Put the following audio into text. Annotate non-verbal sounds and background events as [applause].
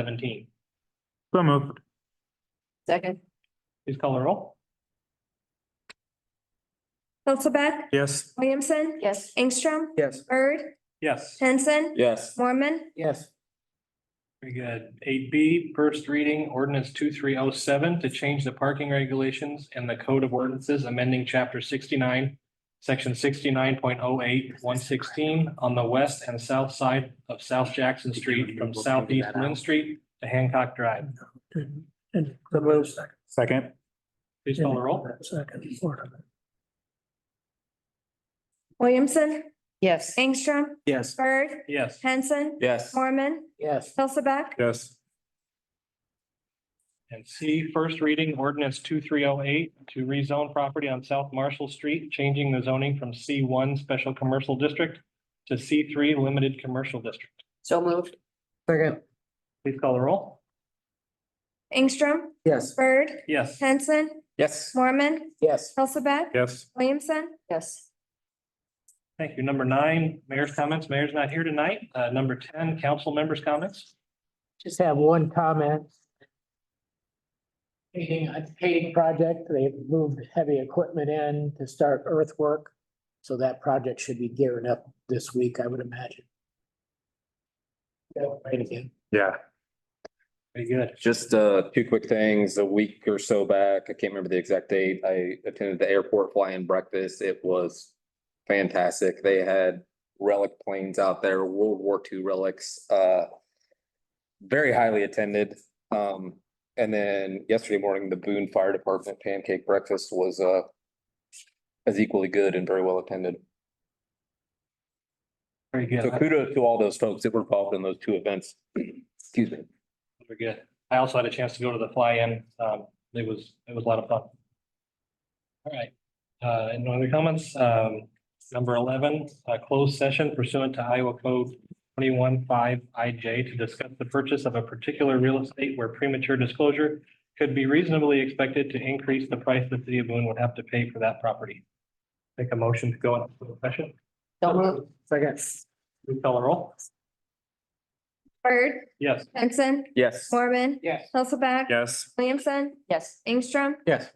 seventeen. So moved. Second. Please call the roll. Hilsaback, Yes. Williamson, Yes. Ingstrom, Yes. Bird, Yes, Henson, Yes. Mormon, Yes. very good. Eight B, first reading ordinance two three oh seven to change the parking regulations and the code of ordinances amending chapter sixty-nine. Section 69.08, 116 on the west and south side of South Jackson Street from southeast Lynn Street to Hancock Drive. And the move second. Second. Please call the roll. Second, fourth of it. Williamson, Yes. Ingstrom, Yes. Bird, Yes. Henson, Yes. Mormon, Yes. Hilsaback, Yes. And C, first reading ordinance two three oh eight to rezone property on South Marshall Street, changing the zoning from C one Special Commercial District to C three Limited Commercial District. So moved. Second. Please call the roll. Ingstrom, Yes. Bird, Yes, Henson, Yes. Mormon, Yes. Hilsaback, Yes. Williamson, Yes. thank you. Number nine, mayor's comments. Mayor's not here tonight. Uh, number ten, council members' comments. Just have one comment. Hating, a hating project, they've moved heavy equipment in to start earthwork. So that project should be gearing up this week, I would imagine. Yeah, Right again. Yeah. Very good. Just uh, two quick things. A week or so back, I can't remember the exact date, I attended the airport fly-in breakfast. It was fantastic. They had relic planes out there, World War II relics, uh, very highly attended. Um, and then yesterday morning, the Boone Fire Department pancake breakfast was uh, as equally good and very well attended. Very good. So kudos to all those folks that were involved in those two events. [clears throat] Excuse me. Very good. I also had a chance to go to the fly-in. Um, it was, it was a lot of fun. All right, uh, and no other comments? Um, number eleven, uh, closed session pursuant to Iowa Code twenty-one five IJ to discuss the purchase of a particular real estate where premature disclosure could be reasonably expected to increase the price the city of Boone would have to pay for that property. Make a motion to go into closed session. So moved. Second. Please call the roll. Bird, Yes. Henson, Yes. Mormon, Yes. Hilsaback, Yes. Williamson, Yes. Ingstrom, Yes.